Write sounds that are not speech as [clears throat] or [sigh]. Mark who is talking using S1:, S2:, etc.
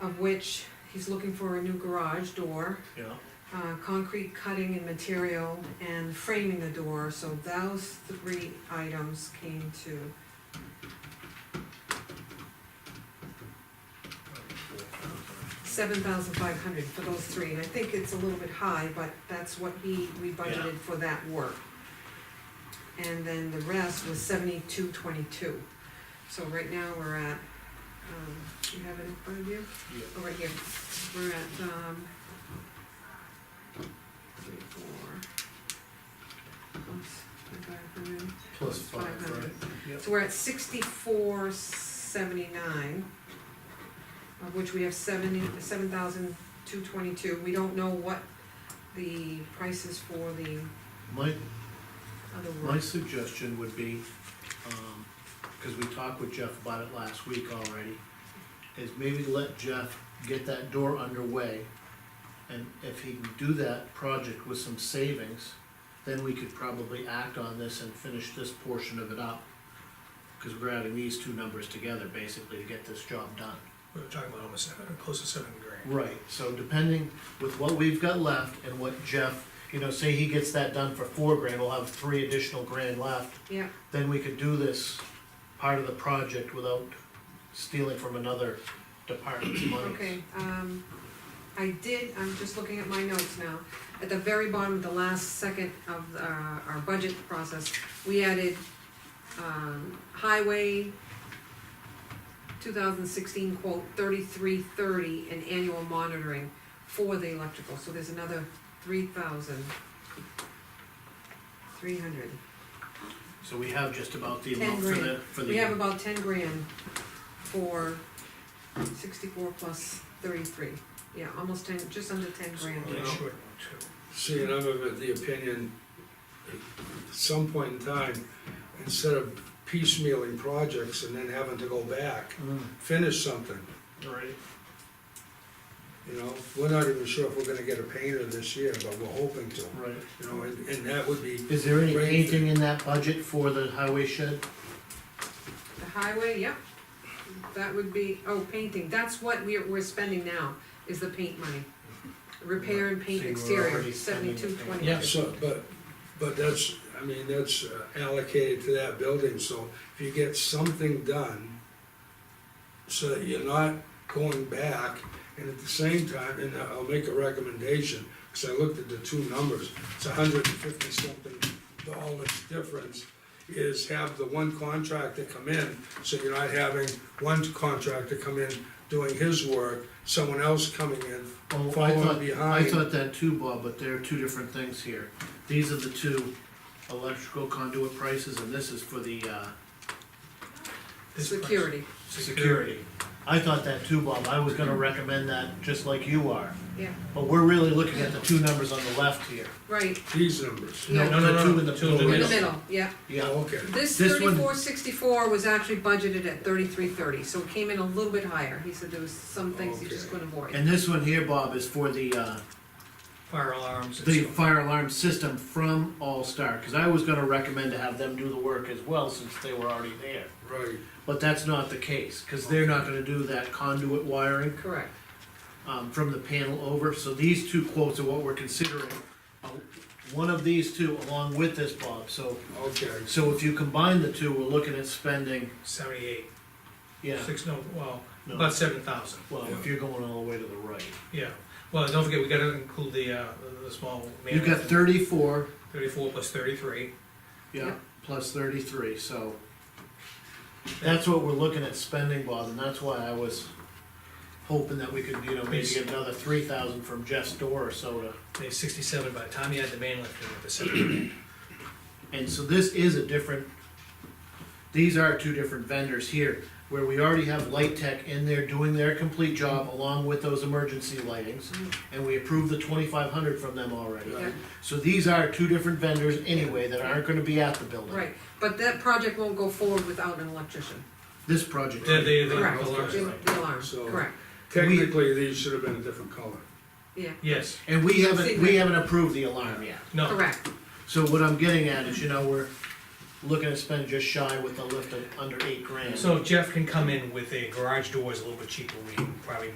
S1: of which he's looking for a new garage door,
S2: yeah,
S1: uh, concrete cutting and material, and framing the door, so those three items came to seven thousand five hundred for those three, and I think it's a little bit high, but that's what he, we budgeted for that work. And then the rest was seventy-two twenty-two, so right now we're at, um, you have it in front of you?
S2: Yeah.
S1: Oh, right here, we're at, um, three, four, plus, I got it from him.
S3: Plus
S1: Five
S3: five,
S1: hundred.
S3: right?
S2: yeah.
S1: So we're at sixty-four seventy-nine, of which we have seventy, seven thousand two twenty-two. We don't know what the price is for the
S3: My,
S1: other
S3: my
S1: work.
S3: suggestion would be, um, cause we talked with Jeff about it last week already, is maybe let Jeff get that door underway. And if he can do that project with some savings, then we could probably act on this and finish this portion of it up. Cause we're adding these two numbers together basically to get this job done.
S2: We were talking about almost seven, close to seven grand.
S3: Right, so depending with what we've got left and what Jeff, you know, say he gets that done for four grand, we'll have three additional grand left.
S1: Yeah,
S3: Then we could do this part of the project without stealing from another department's money.
S1: okay, um, I did, I'm just looking at my notes now. At the very bottom, the last second of uh, our budget process, we added, um, highway two thousand sixteen quote thirty-three thirty and annual monitoring for the electrical, so there's another three thousand three hundred.
S3: So we have just about the
S1: Ten
S3: amount for the,
S1: grand.
S3: for the.
S1: We have about ten grand for sixty-four plus thirty-three, yeah, almost ten, just under ten grand.
S2: Only
S4: Yeah.
S2: short two.
S4: See, and I'm of the opinion, at some point in time, instead of piecemealing projects and then having to go back,
S3: Mm,
S4: finish something,
S3: Right,
S4: you know? We're not even sure if we're gonna get a painter this year, but we're hoping to,
S3: right.
S4: you know, and, and that would be,
S3: Is there any
S4: Right.
S3: painting in that budget for the highway shed?
S1: The highway, yep, that would be, oh, painting, that's what we're, we're spending now, is the paint money. Repair and paint
S3: So you were
S1: exterior,
S3: already spending the
S1: seventy-two
S3: paint.
S1: twenty.
S4: yeah, so, but, but that's, I mean, that's uh, allocated to that building, so if you get something done, so that you're not going back, and at the same time, and I'll make a recommendation, because I looked at the two numbers, it's a hundred and fifty something dollars difference, is have the one contractor come in, so you're not having one contractor come in doing his work, someone else coming in,
S3: Oh, I
S4: following
S3: thought, I
S4: behind.
S3: thought that too, Bob, but there are two different things here. These are the two electrical conduit prices, and this is for the, uh,
S2: This price-
S1: Security,
S3: security. I thought that too, Bob, I was gonna recommend that, just like you are,
S1: yeah,
S3: but we're really looking at the two numbers on the left here.
S1: right,
S4: These numbers.
S1: Yeah.
S2: No, no,
S3: The
S2: no,
S3: two
S2: no,
S3: in the
S2: two in the
S3: middle.
S1: in the
S2: middle.
S1: middle, yeah.
S4: Yeah,
S3: Yeah,
S4: okay.
S1: This
S3: This one-
S1: thirty-four sixty-four was actually budgeted at thirty-three thirty, so it came in a little bit higher, he said there was some things you just
S4: Okay.
S1: couldn't avoid.
S3: and this one here, Bob, is for the, uh,
S2: Fire alarms and
S3: the
S2: so.
S3: fire alarm system from All Star, cause I was gonna recommend to have them do the work as well, since they were already there.
S4: Right,
S3: But that's not the case, cause they're not gonna do that conduit wiring.
S1: Correct,
S3: um, from the panel over, so these two quotes are what we're considering. Uh, One of these two along with this, Bob, so,
S4: okay.
S3: so if you combine the two, we're looking at spending,
S2: Seventy-eight,
S3: yeah,
S2: six, no, well,
S3: No.
S2: about seven thousand,
S3: well, if you're going all the way to the right.
S2: yeah. Well, don't forget, we gotta include the, uh, the small. man-
S3: You've got thirty-four,
S2: Thirty-four plus thirty-three.
S3: yeah,
S1: Yep.
S3: plus thirty-three, so. That's what we're looking at spending, Bob, and that's why I was hoping that we could, you know, maybe get another three thousand from Jeff's door or so to
S2: They sixty-seven, by the time you add the man lift,
S3: [clears throat]
S2: you're at the seventy.
S3: And so this is a different, these are two different vendors here, where we already have Light Tech in there doing their complete job along with those emergency lightings. And we approved the twenty-five hundred from them already.
S1: yeah,
S3: So these are two different vendors anyway that aren't gonna be at the building.
S1: right, but that project won't go forward without an electrician,
S3: This project.
S2: The, the, the
S1: correct,
S2: alarms,
S1: the
S2: right.
S1: the alarm,
S4: So-
S1: correct,
S4: Technically, these should have been a different color.
S1: yeah,
S2: Yes,
S3: And we haven't, we
S1: Secret.
S3: haven't approved the alarm yet.
S2: no.
S1: correct,
S3: So what I'm getting at is, you know, we're looking to spend just shy with a lift of under eight grand.
S2: So Jeff can come in with a garage doors a little bit cheaper, we can probably